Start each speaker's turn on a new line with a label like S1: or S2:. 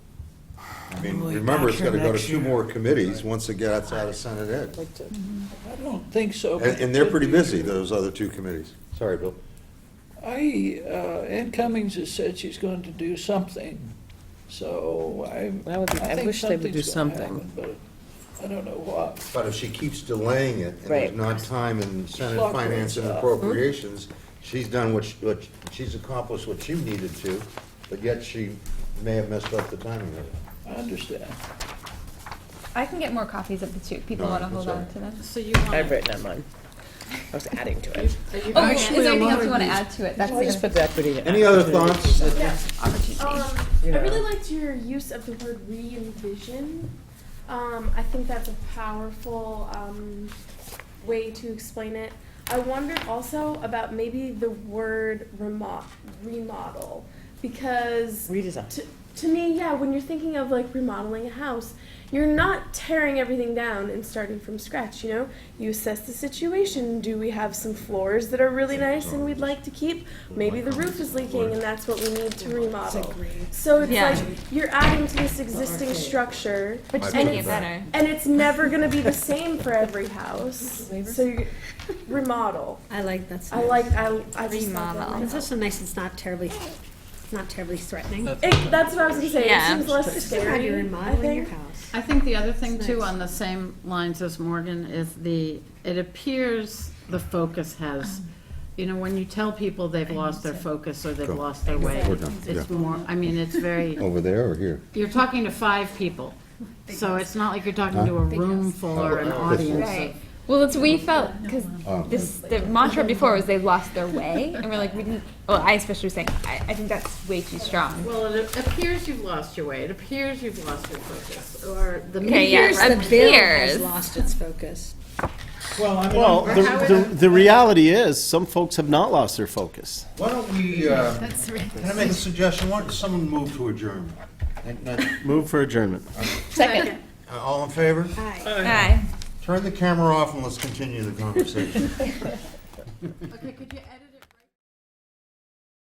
S1: I mean,
S2: Boy,
S1: remember, it's gotta go to
S2: next
S1: two
S2: year.
S1: more committees once it gets out of Senate Ed.
S2: I don't think so.
S1: And, and they're pretty busy, those other two committees. Sorry, Bill.
S2: I, uh, Ann Cummings has said she's going to do something, so I.
S3: That would be- I
S2: think
S3: wish they would do
S2: something's gonna
S3: something.
S2: happen, But I don't know what.
S1: But if she keeps delaying it, and there's
S3: Right.
S1: not time in Senate
S2: Clock
S1: Finance and
S2: rules out.
S1: Appropriations, she's done what, she- what, she's accomplished what she needed to, but yet she may have messed up the timing of it.
S2: I understand.
S4: I can get more copies of the two. People
S1: No,
S4: want to
S1: that's
S4: hold
S1: all
S4: on
S1: right.
S4: to them.
S5: So you
S3: I've
S5: want,
S3: written on mine. I was adding to it.
S4: Oh, is
S2: Actually,
S4: there
S2: a
S4: anything
S2: lot
S4: else you
S2: of
S4: want to
S2: these-
S4: add to it? That's
S3: Well, I just put the equity.
S1: Any other thoughts?
S4: opportunity.
S6: Um,
S3: You
S6: I really
S3: know.
S6: liked your use of the word re-envision. Um, I think that's a powerful um, way to explain it. I wondered also about maybe the word remo- remodel because
S3: Redesign.
S6: to, to me, yeah, when you're thinking of like remodeling a house, you're not tearing everything down and starting from scratch, you know? You assess the situation. Do we have some floors that are really nice and we'd like to keep? Maybe the roof is leaking and that's what we need to remodel. So it's
S4: Yeah.
S6: like you're adding to this existing structure
S4: Which is
S1: My
S4: making it
S1: feedback.
S4: better.
S6: and it's never going to be the same for every house. So you remodel.
S7: I like that.
S6: I like I I just thought that
S4: Remodel.
S7: It's
S6: might help.
S7: also nice. It's not terribly, not terribly threatening.
S6: It, that's what I was gonna say.
S4: Yeah.
S6: It seems less
S7: It's still how
S6: scary.
S7: you're
S6: I
S7: remodeling your
S6: think.
S7: house.
S5: I think the other thing
S7: It's
S5: too,
S7: nice.
S5: on the same lines as Morgan, is the, it appears the focus has, you know, when you tell people they've lost their focus or they've
S1: Go.
S5: lost their way,
S1: We're done,
S5: it's
S1: yeah.
S5: more, I mean, it's very,
S1: Over there or here?
S5: you're talking to five people. So it's not like you're talking to a room full or an
S1: Big house.
S5: audience
S4: Right.
S5: of
S4: Well, it's we felt because
S1: Oh.
S4: this the mantra before was they lost their way, and we're like we didn't. Well, I especially was saying I, I think that's way too strong.
S5: Well, it appears you've lost your way, it appears you've lost your focus, or the
S4: Okay,
S5: media.
S4: yeah, appears.
S7: Lost its focus.
S8: Well, I mean,
S9: Well,
S8: I'm-
S9: the, the, the reality is, some folks have not lost their focus.
S1: Why don't we, uh, can I make a suggestion? Why don't someone move to adjourn? And- and-
S9: Move for adjournment.
S3: Second.
S1: uh, All in favor?
S4: Aye.
S1: Turn the camera off and let's continue the conversation.
S5: Okay, could you edit